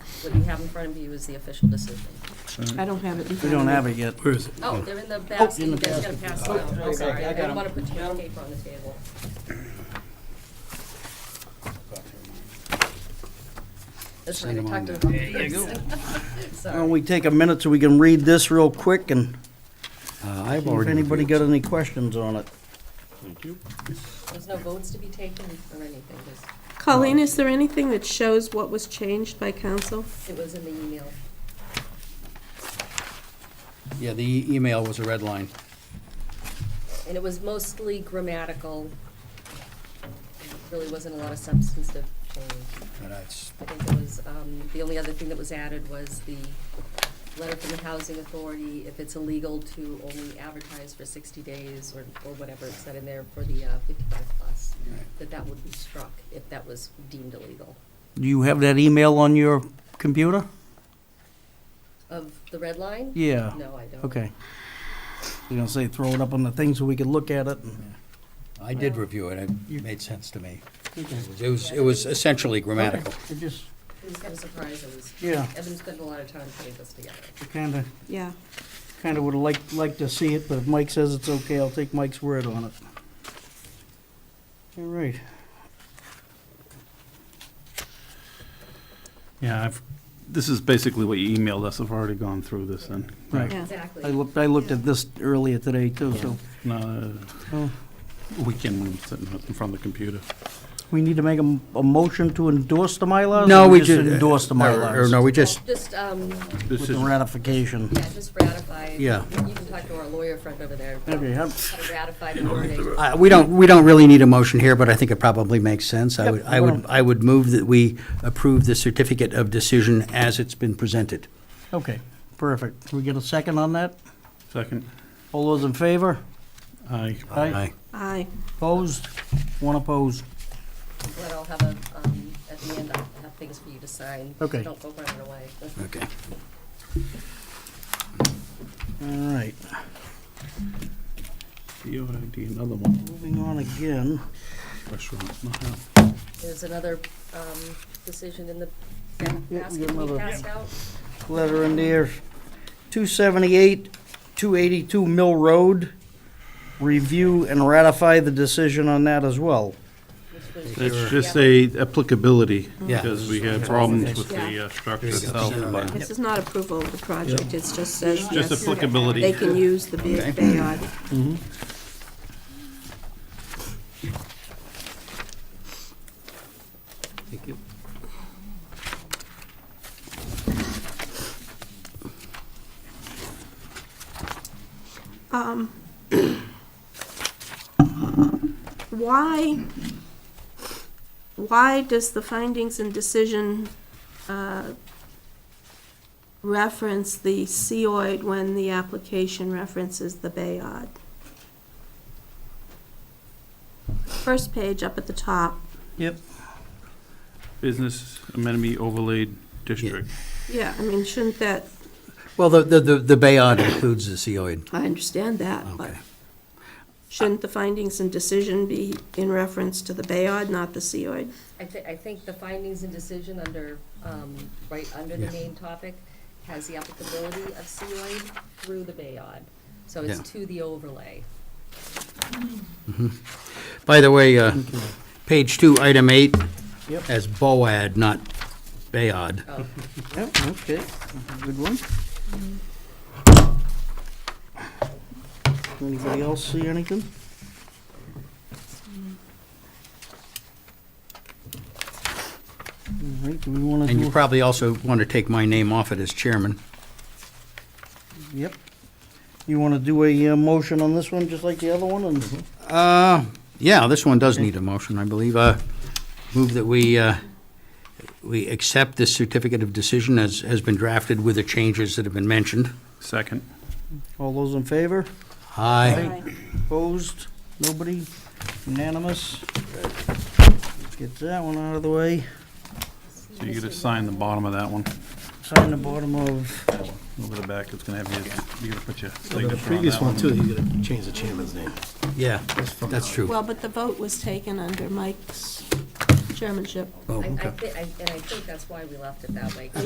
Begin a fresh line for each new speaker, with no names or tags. What you have in front of you is the official decision.
I don't have it in
We
front of
don't
me.
have it yet. Where is it?
Oh, they're in the basket,
in
you
the
guys gotta pass them out, I'm sorry, I didn't wanna put too much paper on the table. That's right, I talked to them. There you go.
Why
Sorry.
don't we take a minute so we can read this real quick and
Uh, I've
see if
already.
anybody
reviewed
got any questions on it.
There's no votes to be taken or anything, just,
Colleen, is there anything that shows what was changed by council?
it was in the email.
it. Yeah, the e- email was a red line.
And it was mostly grammatical. Really wasn't a lot of substantive change.
And that's-
I think it was, um, the only other thing that was added was the letter from the housing authority, if it's illegal to only advertise for sixty days or, or whatever it said in there for the uh, fifty-five plus, that that would be struck if that was deemed illegal.
Do you have that email on your computer?
Of the red line?
Yeah.
No, I don't.
Okay. You're gonna say throw it up on the thing so we can look at it? and-
I did review it, it made sense to me. It was- It was, it was essentially grammatical.
It just,
It was kind of surprised, it was,
yeah,
Evan spent a lot of time putting this together.
kinda,
Yeah.
kinda would like, like to see it, but if Mike says it's okay, I'll take Mike's word on it. All right.
Yeah, I've, this is basically what you emailed us. I've already gone through this and.
Right.
Yeah.
Exactly.
I looked, I looked at this earlier today too, so
No,
Oh.
weekend when I'm sitting in front of the computer.
we need to make a, m- a motion to endorse the Mylars?
No,
or
we just.
Endorse the Mylars?
Or no, we just,
Just, um,
With the ratification.
yeah, just ratify.
Yeah.
You can talk to our lawyer friend over there. about
Okay, I'm-
How to ratify the wording.
Uh, We don't, we don't really need a motion here, but I think it probably makes sense. I
Yep,
would, I would,
well-
I would move that we approve the certificate of decision as it's been presented.
okay, perfect. Can we get a second on that?
Second.
All those in favor?
Aye.
Aye.
Aye.
Opposed? One opposed.
But I'll have a, um, at the end, I'll have things for you to sign.
Okay.
Don't go running away.
Okay.
All right,
DOID, another one.
moving on again.
Restaurant, not out.
There's another, um, decision in the ba-
we got
basket we
another-
passed out.
Letter in there, 278, 282 Mill Road. Review and ratify the decision on that as well.
which was-
It's just a applicability,
Yeah.
because we had problems with the uh, structure
There you go.
itself. but
This is not approval of the project, it just says,
Just
yes,
applicability.
they can use the ba- Bayard.
Thank you.
Um, Why, why does the findings and decision uh, reference the COID when the application references the Bayard? First page up at the top,
Yep.
Business amenity overlay district.
yeah, I mean, shouldn't that,
Well, the, the, the- the Bayard includes the COID.
I understand that, but
Okay.
shouldn't the findings and decision be in reference to the Bayard, not the COID?
I thi- I think the findings and decision under, um, right under the
Yeah.
main topic has the applicability of COA through the Bayard. So it's
Yeah.
to the overlay.
By the way, uh, page two, item eight,
Yep.
as Boad, not Bayard.
Oh,
Yep, okay, good one. Anybody else see anything? All right, do we want to
And you
do,
probably also want to take my name off it as chairman.
yep. You want to do a uh, motion on this one, just like the other one, and
Uh, yeah, this one does need a motion, I believe. Uh, Move that we, uh, we accept this certificate of decision as has been drafted with the changes that have been mentioned.
Second.
all those in favor?
Aye.
Opposed? Nobody? Unanimous? Get that one out of the way.
So you get to sign the bottom of that one.
Sign the bottom of,
Over the back, it's gonna have your, you gotta put your
Like
signature on
the previous
that
one
one.
too, he's gonna change the chairman's name.
Yeah,
That's from
that's
now.
true.
Well, but the vote was taken under Mike's chairmanship.
Oh,
I, I
okay.
thi- I- and I think that's why we left it that way, 'cause